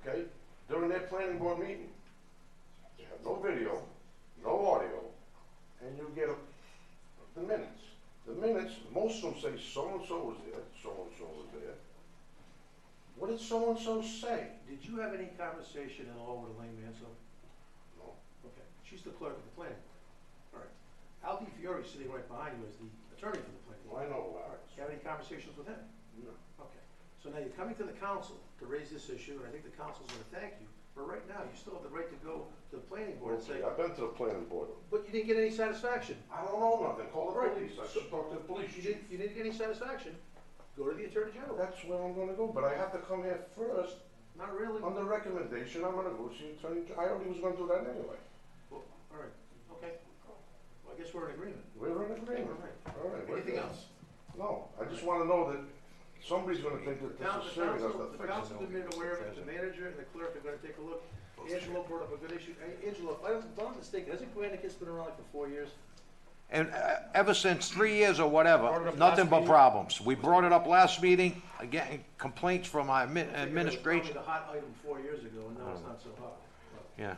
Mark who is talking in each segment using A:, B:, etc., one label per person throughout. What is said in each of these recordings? A: okay? During that planning board meeting. You have no video, no audio, and you get a- the minutes. The minutes, most of them say so-and-so was there, so-and-so was there. What did so-and-so say?
B: Did you have any conversation at all with Elaine Mansell?
A: No.
B: Okay, she's the clerk of the planning board. All right. Al Di Fiore, sitting right behind you, is the attorney for the planning
A: Well,
B: board.
A: I know
B: All right,
A: Larry's.
B: you have any conversations with him?
A: No.
B: Okay, so now you're coming to the council to raise this issue, and I think the council's gonna thank you, but right now, you still have the right to go to the planning board and say,
A: Okay, I've been to the planning board.
B: but you didn't get any satisfaction.
A: I don't know nothing, call the
B: Right.
A: police, I should talk to the police.
B: You didn't, you didn't get any satisfaction, go to the attorney general.
A: That's where I'm gonna go, but I have to come here first,
B: Not really.
A: on the recommendation, I'm gonna go see attorney, I already was gonna do that anyway.
B: Well, all right, okay. Well, I guess we're in agreement.
A: We're in agreement.
B: All right.
A: All right. we're
B: Anything
A: good.
B: else?
A: No, I just wanna know that somebody's gonna think that
B: The town-
A: this is
B: the
A: serious,
B: council,
A: that's
B: the council been made aware of it, the manager and the clerk are gonna take a look. Angelo brought up a good issue. Hey, Angelo, if I'm not mistaken, hasn't Granicus been around like for four years?
C: And uh, ever since three years or whatever, nothing but problems. We brought it up last meeting, again, complaints from our admin-
B: It
C: administration,
B: was probably the hot item four years ago, and now it's not so hot.
C: yeah.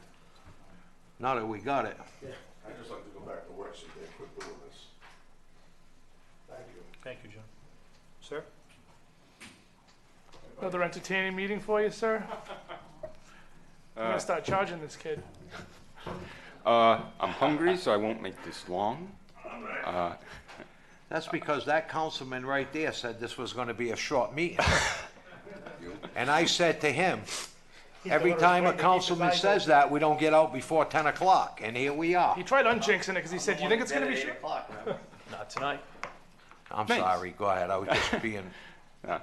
C: Now that we got it.
A: I just like to go back to work, so they quit doing this. Thank you.
D: Thank you, John. Sir?
E: Another entertaining meeting for you, sir. I'm gonna start charging this kid.
F: Uh, I'm hungry, so I won't make this long. Uh,
C: That's because that councilman right there said this was gonna be a short meeting. And I said to him, every time a councilman says that, we don't get out before ten o'clock, and here we
E: He
C: are.
E: tried unjinxing it because he said, "You think it's gonna be short?"
D: Not tonight.
C: I'm
F: Thanks.
C: sorry, go ahead, I was just being,
F: uh,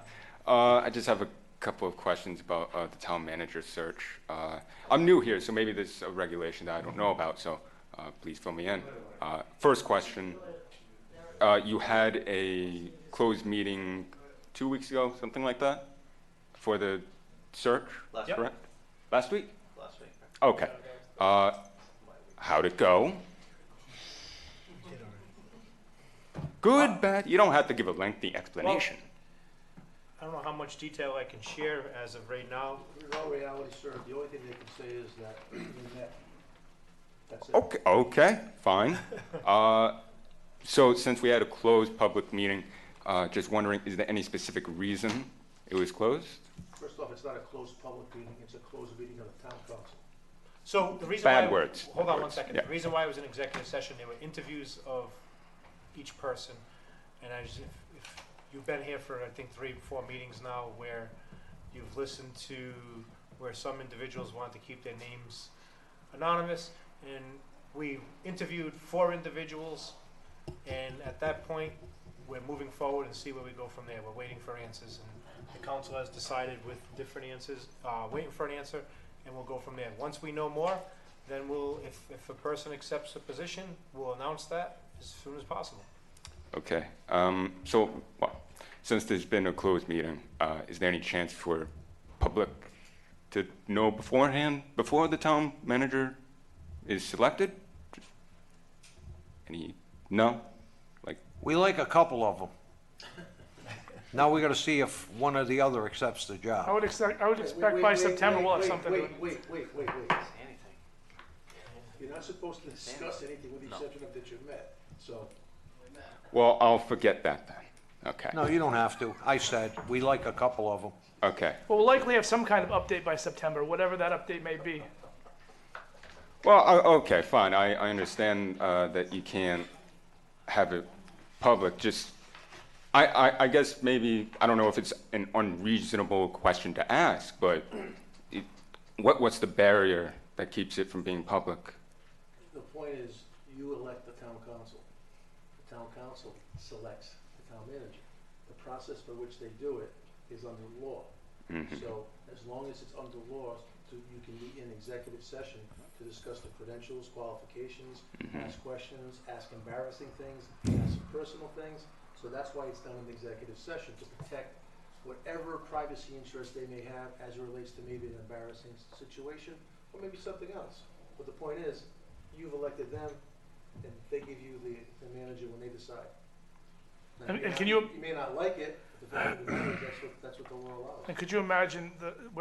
F: I just have a couple of questions about uh, the town manager search. Uh, I'm new here, so maybe there's a regulation that I don't know about, so uh, please fill me in. Uh, First question, uh, you had a closed meeting two weeks ago, something like that, for the search?
G: Last
D: Yep.
F: correct? Last week?
G: last week.
F: Okay. Uh, how'd it go? Good, bad. You don't have to give a lengthy explanation.
D: I don't know how much detail I can share as of right now.
B: In all reality, sir, the only thing they can say is that they met. That's
E: Oh.
B: it.
F: Okay, okay, fine. Uh, so since we had a closed public meeting, uh, just wondering, is there any specific reason it was closed?
B: First off, it's not a closed public meeting, it's a closed meeting of the town council.
D: So the reason
F: Bad
D: why,
F: words,
D: Hold on
F: bad
D: one
F: words,
D: second.
F: yeah.
D: The reason why it was an executive session, there were interviews of each person, and I just, if, if you've been here for I think three, four meetings now, where you've listened to where some individuals want to keep their names anonymous, and we interviewed four individuals, and at that point, we're moving forward and see where we go from there. We're waiting for answers, and the council has decided with different answers, uh, waiting for an answer, and we'll go from there. Once we know more, then we'll, if, if a person accepts a position, we'll announce that as soon as possible.
F: Okay, um, so, well, since there's been a closed meeting, uh, is there any chance for public to know beforehand, before the town manager is selected? Any, no? Like,
C: we like a couple of them. Now we gotta see if one or the other accepts the job.
E: I would expect. I would expect
B: Wait,
E: by
B: wait, wait,
E: September
B: wait,
E: we'll have
B: wait,
E: something.
B: Wait, wait, wait, wait, wait.
G: Anything.
B: You're not supposed to discuss anything with the exception of that you've met, so.
F: well, I'll forget that then. Okay,
C: No, you don't have to. I said, we like a couple of them.
F: okay.
E: Well, we'll likely have some kind of update by September, whatever that update may be.
F: Well, o- okay, fine. I, I understand uh, that you can't have it public. Just, I, I, I guess maybe, I don't know if it's an unreasonable question to ask, but it, what, what's the barrier that keeps it from being public?
B: The point is, you elect the town council. The town council selects the town manager. The process by which they do it is under law. So as long as it's under law, to- you can meet in executive session to discuss the credentials, qualifications, ask questions, ask embarrassing things, ask personal things. So that's why it's done in executive session, to protect whatever privacy interest they may have as it relates to maybe an embarrassing s- situation or maybe something else. But the point is, you've elected them, and they give you the, the manager when they decide. Now,
E: And-
B: may
E: and
B: not-
E: can you-
B: You may not like it, but the fact of the matter is, that's what, that's what the law allows.
E: And could you imagine the,